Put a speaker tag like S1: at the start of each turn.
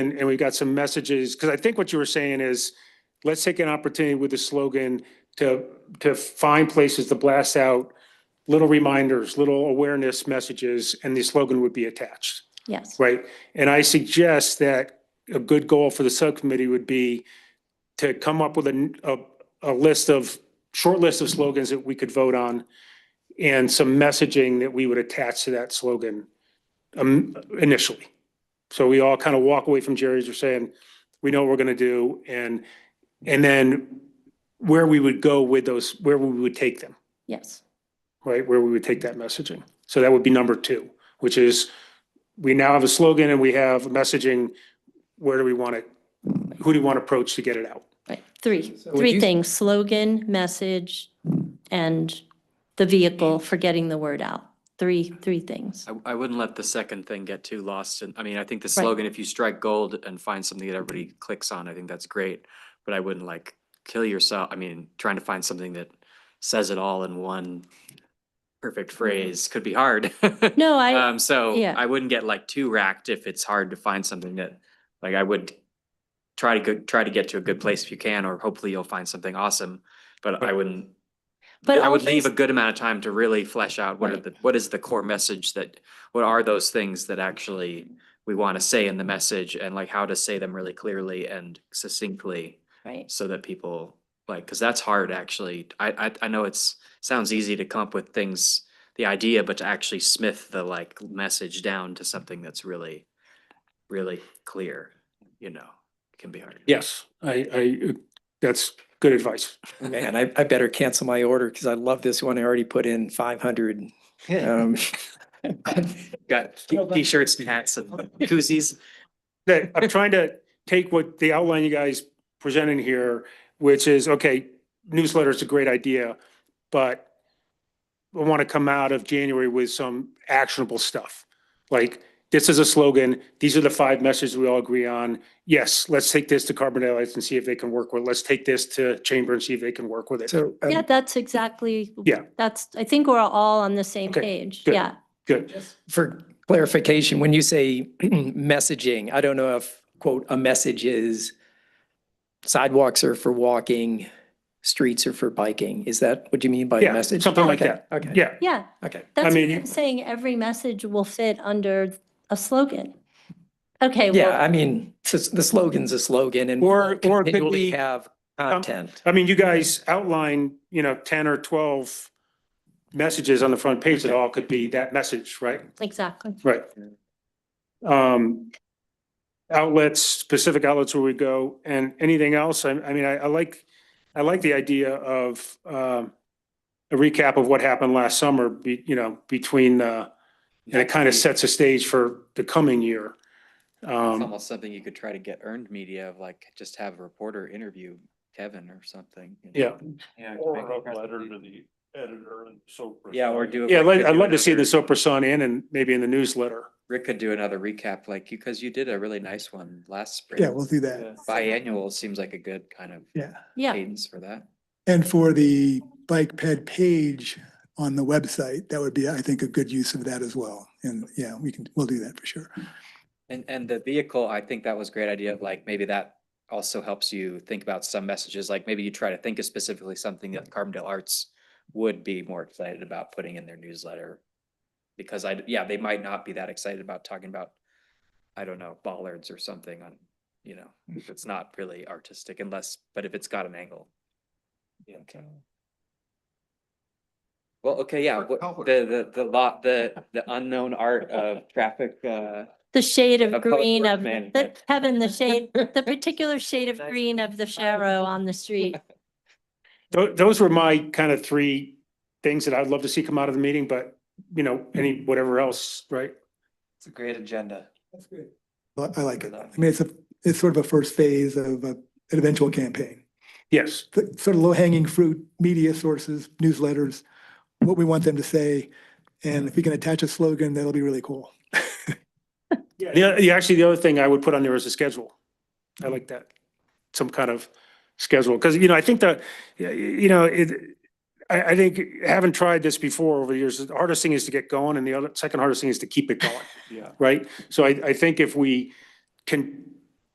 S1: And, and we got some messages, because I think what you were saying is, let's take an opportunity with the slogan to, to find places to blast out little reminders, little awareness messages, and the slogan would be attached,
S2: Yes,
S1: right? And I suggest that a good goal for the subcommittee would be to come up with a, a, a list of, short list of slogans that we could vote on and some messaging that we would attach to that slogan um, initially. So we all kind of walk away from Jerry's or saying, we know what we're going to do. And, and then where we would go with those, where we would take them,
S2: yes,
S1: right? Where we would take that messaging. So that would be number two, which is we now have a slogan and we have messaging. Where do we want it? Who do you want to approach to get it out?
S2: right. Three,
S3: would
S2: three
S3: you-
S2: things, slogan, message, and the vehicle for getting the word out. Three, three things.
S3: I, I wouldn't let the second thing get too lost. And I mean, I think the slogan, if you strike gold and find something that everybody clicks on, I think that's great. But I wouldn't like kill yourself. I mean, trying to find something that says it all in one perfect phrase could be hard.
S2: Mm-hmm. No, I,
S3: Um, so
S2: yeah.
S3: I wouldn't get like too racked if it's hard to find something that, like, I would try to go, try to get to a
S2: Mm-hmm.
S3: good place if you can, or hopefully you'll find something awesome. But I wouldn't
S2: but
S3: I would
S2: all
S3: leave a
S2: these-
S3: good amount of time to really flesh out what are
S2: Right.
S3: the, what is the core message that, what are those things that actually we want to say in the message and like how to say them really clearly and succinctly
S2: Right,
S3: so that people like, because that's hard actually. I, I, I know it's, sounds easy to come up with things, the idea, but to actually smith the like message down to something that's really, really clear, you know, can be hard.
S1: Yes, I, I, that's good advice.
S4: Man, I, I better cancel my order because I love this one. I already put in five hundred. Um,
S3: Got t- t-shirts and hats and koozies.
S1: that I'm trying to take what the outline you guys presented here, which is, okay, newsletter is a great idea, but I want to come out of January with some actionable stuff. Like, this is a slogan, these are the five messages we all agree on. Yes, let's take this to Carbondale and see if they can work with, it. let's take this to Chamber and see if they can work with it.
S4: so, um,
S2: yeah, that's exactly.
S1: Yeah.
S2: That's, I think we're all on the same
S1: Okay,
S2: page.
S1: good.
S2: Yeah,
S1: Good.
S4: for clarification, when you say messaging, I don't know if quote, a message is sidewalks are for walking, streets are for biking. Is that what you mean by
S1: Yeah,
S4: a message?
S1: something like
S4: Okay,
S1: that.
S4: Okay.
S1: Yeah,
S2: yeah.
S4: Okay.
S2: That's what
S1: mean, you-
S2: I'm saying. Every message will fit under a slogan. Okay,
S4: Yeah,
S2: well,
S4: I mean, s- the slogan's a slogan and.
S1: Or-
S4: we'll
S1: or it could
S4: continually
S1: be,
S4: Have content.
S1: I mean, you guys outline, you know, ten or twelve messages on the front page that all could be that message, right?
S2: exactly.
S1: Right. Um, outlets, specific outlets where we go and anything else. I, I mean, I, I like, I like the idea of, um, a recap of what happened last summer, be, you know, between, uh, and it kind of sets a stage for the coming year.
S3: It's
S1: Um,
S3: almost something you could try to get earned media of like, just have a reporter interview Kevin or something. you
S1: yeah,
S3: know? Yeah.
S5: Or a letter to the editor and so. forth.
S3: Yeah, or do.
S1: yeah, I'd like- I'd love to see
S3: another-
S1: this Oprah Sun in and maybe in the newsletter.
S3: Rick could do another recap, like, because you did a really nice one last spring.
S6: Yeah, we'll do that.
S3: Biannual seems like a good kind of
S6: Yeah.
S2: Yeah,
S3: cadence for that.
S6: And for the bike ped page on the website, that would be, I think, a good use of that as well. And yeah, we can, we'll do that for sure.
S3: And, and the vehicle, I think that was a great idea. of Like, maybe that also helps you think about some messages. Like, maybe you try to think of specifically something that Carbondale Arts would be more excited about putting in their newsletter. Because I, yeah, they might not be that excited about talking about, I don't know, bollards or something on, you know, if it's not really artistic unless, but if it's got an angle. you know, kinda. Well, okay, yeah,
S5: Or
S3: what-
S5: color.
S3: the, the, the lot, the, the unknown art of traffic, uh,
S2: the shade of
S3: Of public
S2: green
S3: works
S2: of, the
S3: management.
S2: Kevin, the shade, the particular shade of
S3: Nice.
S2: green of the Sharrow on the street.
S1: Tho- Those were my kind of three things that I'd love to see come out of the meeting, but you know, any, whatever else, right?
S7: It's a great agenda.
S6: That's great. I I like it. I
S7: Enough.
S6: mean, it's a, it's sort of a first phase of a- an eventual campaign.
S1: Yes.
S6: The Sort of low hanging fruit, media sources, newsletters, what we want them to say. And if we can attach a slogan, that'll be really cool.
S1: Yeah, the, the- actually, the other thing I would put on there is a schedule. I like that, some kind of schedule, because, you know, I think that, you know, it, I, I think, having tried this before over the years, the hardest thing is to get going, and the other, second hardest thing is to keep it going,
S5: Yeah.
S1: right? So I, I think if we can